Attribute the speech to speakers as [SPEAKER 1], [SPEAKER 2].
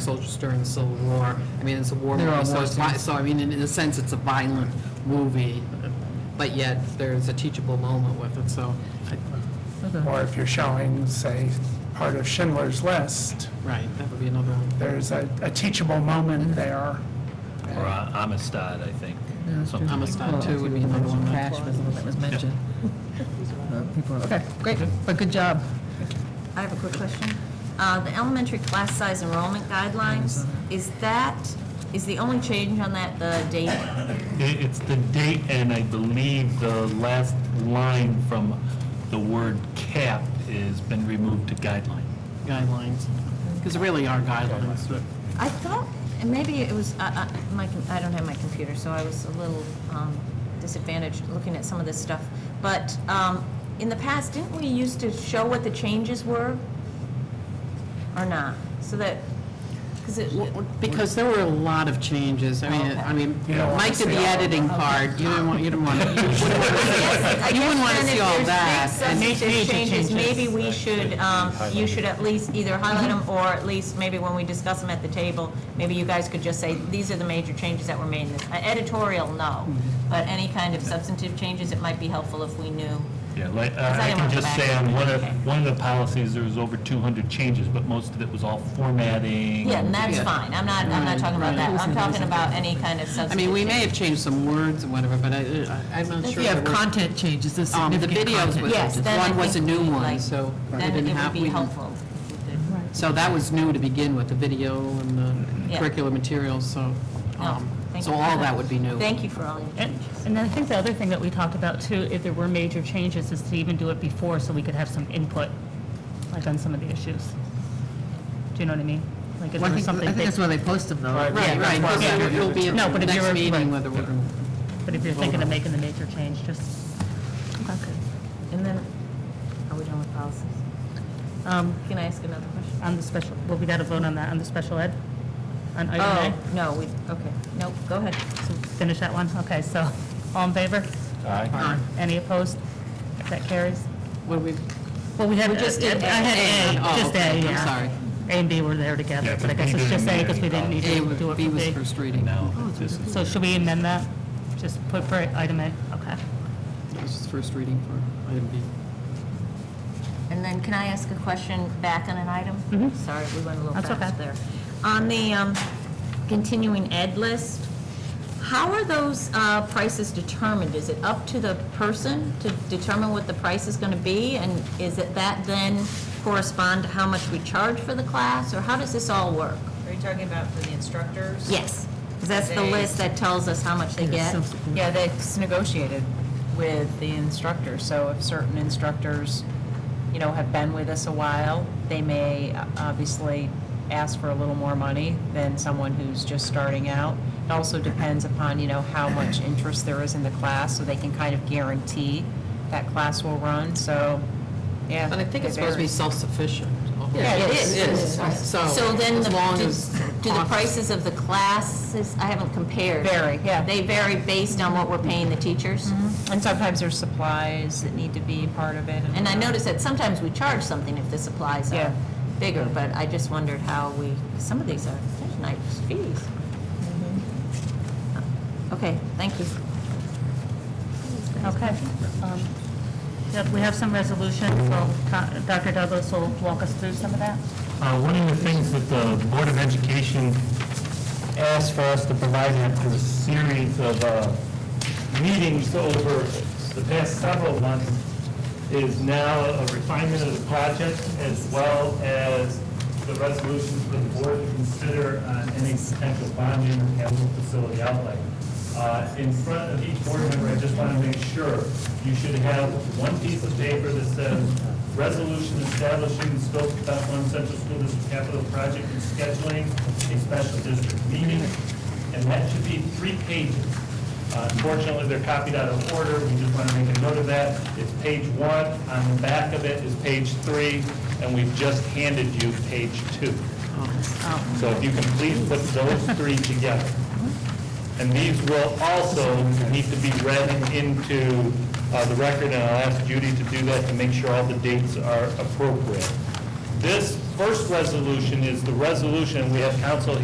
[SPEAKER 1] soldiers during the Civil War. I mean, it's a war
[SPEAKER 2] They're all
[SPEAKER 1] movie, so
[SPEAKER 2] war
[SPEAKER 1] it's, vi-
[SPEAKER 2] scenes.
[SPEAKER 1] so I mean, in in a sense, it's a violent movie, but yet there's a teachable moment with it, so, I-
[SPEAKER 2] Or if you're showing, say, part of Schindler's List,
[SPEAKER 1] right, that would be another one.
[SPEAKER 2] there's a a teachable moment there.
[SPEAKER 3] Or uh, Amistad, I think. something like
[SPEAKER 1] Amistad too would be another one.
[SPEAKER 4] Crash was the one that was mentioned. Uh, people are- Okay, great, but good job.
[SPEAKER 5] I have a quick question. Uh, The elementary class size enrollment guidelines, is that, is the only change on that the date?
[SPEAKER 3] It- It's the date and I believe the last line from the word cap has been removed to guideline.
[SPEAKER 1] Guidelines, because there really are guidelines, but
[SPEAKER 5] I thought, and maybe it was, I- I my com- I don't have my computer, so I was a little um, disadvantaged looking at some of this stuff. But um, in the past, didn't we used to show what the changes were? Or not? So that, because it,
[SPEAKER 1] Because there were a lot of changes. I mean, I mean,
[SPEAKER 2] You don't wanna
[SPEAKER 1] Mike did
[SPEAKER 2] see
[SPEAKER 1] the
[SPEAKER 2] all of
[SPEAKER 1] editing
[SPEAKER 4] uh,
[SPEAKER 1] part. You didn't want, you didn't want, you wouldn't want You
[SPEAKER 5] I guess
[SPEAKER 1] wouldn't wanna
[SPEAKER 5] then if
[SPEAKER 1] see all
[SPEAKER 5] there's
[SPEAKER 1] that,
[SPEAKER 5] big
[SPEAKER 1] and-
[SPEAKER 5] Substantive changes, maybe we should, um, you should at least either highlight them, or at least maybe when we discuss them at the table, maybe you guys could just say, these are the major changes that were made in this. Uh, Editorial, no,
[SPEAKER 1] Mm-hmm.
[SPEAKER 5] but any kind of substantive changes, it might be helpful if we knew.
[SPEAKER 3] Yeah, like, uh,
[SPEAKER 5] Because I
[SPEAKER 3] I can
[SPEAKER 5] didn't want
[SPEAKER 3] just
[SPEAKER 5] the
[SPEAKER 3] say
[SPEAKER 5] back.
[SPEAKER 3] on one of, one of the policies, there was over 200 changes, but most of it was all formatting.
[SPEAKER 5] Yeah, and that's
[SPEAKER 1] Yeah.
[SPEAKER 5] fine, I'm not, I'm not talking about that, I'm talking about any kind of
[SPEAKER 1] I
[SPEAKER 5] substantive.
[SPEAKER 1] mean, we may have
[SPEAKER 5] change.
[SPEAKER 1] changed some words and whatever, but I, I- I'm not sure.
[SPEAKER 4] You have
[SPEAKER 1] there were-
[SPEAKER 4] content changes, there's
[SPEAKER 1] Um, The
[SPEAKER 4] significant
[SPEAKER 1] videos,
[SPEAKER 4] content.
[SPEAKER 1] was-
[SPEAKER 5] Yes, then I
[SPEAKER 1] one was a
[SPEAKER 5] think
[SPEAKER 1] new
[SPEAKER 5] we,
[SPEAKER 1] one,
[SPEAKER 5] like,
[SPEAKER 1] so we
[SPEAKER 5] Then
[SPEAKER 1] didn't
[SPEAKER 5] it
[SPEAKER 1] have.
[SPEAKER 5] would be
[SPEAKER 1] we didn't-
[SPEAKER 5] helpful.
[SPEAKER 1] So that was new to begin with, the video and the
[SPEAKER 5] Yeah.
[SPEAKER 1] curricular materials, so,
[SPEAKER 5] No,
[SPEAKER 1] um,
[SPEAKER 5] thank
[SPEAKER 1] so
[SPEAKER 5] you.
[SPEAKER 1] all that would be new.
[SPEAKER 5] Thank you for all your
[SPEAKER 6] And
[SPEAKER 5] changes.
[SPEAKER 6] and then I think the other thing that we talked about too, if there were major changes, is to even do it before so we could have some input, like on some of the issues. Do you know what I mean? Like if
[SPEAKER 4] Well,
[SPEAKER 6] there
[SPEAKER 4] I
[SPEAKER 6] was
[SPEAKER 4] think, I
[SPEAKER 6] something
[SPEAKER 4] think
[SPEAKER 6] big,
[SPEAKER 4] that's why they post them though.
[SPEAKER 2] Right.
[SPEAKER 1] Right, right, because
[SPEAKER 2] Yeah.
[SPEAKER 1] it will be at
[SPEAKER 6] No, but
[SPEAKER 1] the
[SPEAKER 6] if
[SPEAKER 1] next
[SPEAKER 6] you're-
[SPEAKER 1] meeting
[SPEAKER 6] right.
[SPEAKER 1] whether we're.
[SPEAKER 6] but if you're thinking of making the major change, just,
[SPEAKER 5] And then, are we done with policies?
[SPEAKER 6] um,
[SPEAKER 5] Can I ask another question?
[SPEAKER 6] on the special, well, we got to vote on that, on the special ed? On item
[SPEAKER 5] Oh, no, we, okay, nope, go ahead.
[SPEAKER 6] A? So finish that one? Okay, so, all in favor?
[SPEAKER 3] Aye.
[SPEAKER 6] Any opposed? That carries?
[SPEAKER 1] What do we,
[SPEAKER 6] Well, we had, uh, I
[SPEAKER 1] just did
[SPEAKER 6] had
[SPEAKER 1] A.
[SPEAKER 6] A, just
[SPEAKER 1] Oh, okay,
[SPEAKER 6] A,
[SPEAKER 1] I'm
[SPEAKER 6] yeah.
[SPEAKER 1] sorry.
[SPEAKER 6] A and B were there together,
[SPEAKER 3] Yeah,
[SPEAKER 6] but I
[SPEAKER 3] but
[SPEAKER 6] guess
[SPEAKER 3] B
[SPEAKER 6] it's just
[SPEAKER 3] didn't
[SPEAKER 6] A
[SPEAKER 3] need
[SPEAKER 6] because we didn't need to
[SPEAKER 1] A
[SPEAKER 6] do it for
[SPEAKER 1] would- B was first reading.
[SPEAKER 3] Now, this is,
[SPEAKER 6] So should we amend that? Just put for item A, okay.
[SPEAKER 1] It was just first reading for item B.
[SPEAKER 5] And then can I ask a question back on an item? Sorry, we went a little
[SPEAKER 6] That's
[SPEAKER 5] fast
[SPEAKER 6] okay.
[SPEAKER 5] there. On the um, continuing ed list, how are those uh, prices determined? Is it up to the person to determine what the price is going to be? And is it that then correspond to how much we charge for the class? Or how does this all work?
[SPEAKER 7] Are you talking about for the instructors?
[SPEAKER 5] Yes, 'cause that's the
[SPEAKER 7] They-
[SPEAKER 5] list that tells us how much they get.
[SPEAKER 7] Yeah, that's negotiated with the instructors. So if certain instructors, you know, have been with us a while, they may uh, obviously ask for a little more money than someone who's just starting out. It also depends upon, you know, how much interest there is in the class, so they can kind of guarantee that class will run, so, yeah.
[SPEAKER 1] But I think it's
[SPEAKER 7] it
[SPEAKER 1] supposed to be
[SPEAKER 7] varies.
[SPEAKER 1] self-sufficient.
[SPEAKER 7] Yeah, it is.
[SPEAKER 1] It is, so.
[SPEAKER 5] So then,
[SPEAKER 1] as
[SPEAKER 5] the-
[SPEAKER 1] long
[SPEAKER 5] do
[SPEAKER 1] as
[SPEAKER 5] do the
[SPEAKER 1] costs-
[SPEAKER 5] prices of the classes, I haven't compared.
[SPEAKER 7] Vary, yeah.
[SPEAKER 5] They vary based on what we're paying the teachers?
[SPEAKER 1] Mm-hmm.
[SPEAKER 7] And sometimes there's supplies that need to be part of it.
[SPEAKER 5] And I noticed that sometimes we charge something if the supplies
[SPEAKER 7] Yeah.
[SPEAKER 5] are bigger, but I just wondered how we, some of these are they're nice fees.
[SPEAKER 1] Mm-hmm.
[SPEAKER 5] Okay, thank you.
[SPEAKER 6] Okay. Um, Yep, we have some resolutions, so Co- Dr. Douglas will walk us through some of that.
[SPEAKER 3] Uh, One of the things that the Board of Education asked for us to provide them through a series of uh, meetings over the past several months is now a refinement of the project as well as the resolutions for the board to consider on any potential bonding or capital facility outlay. Uh, In front of each board member, I just want to make sure, you should have one piece of paper that says, resolution establishing the scope of Bethlehem Central School District capital project and scheduling a special district meeting, and that should be three pages. Uh, Unfortunately, they're copied out of order, we just want to make a note of that. It's page one, on the back of it is page three, and we've just handed you page two. So if you can please put those three together. And these will also need to be read into uh, the record, and I'll ask Judy to do that to make sure all the dates are appropriate. This first resolution is the resolution, we have council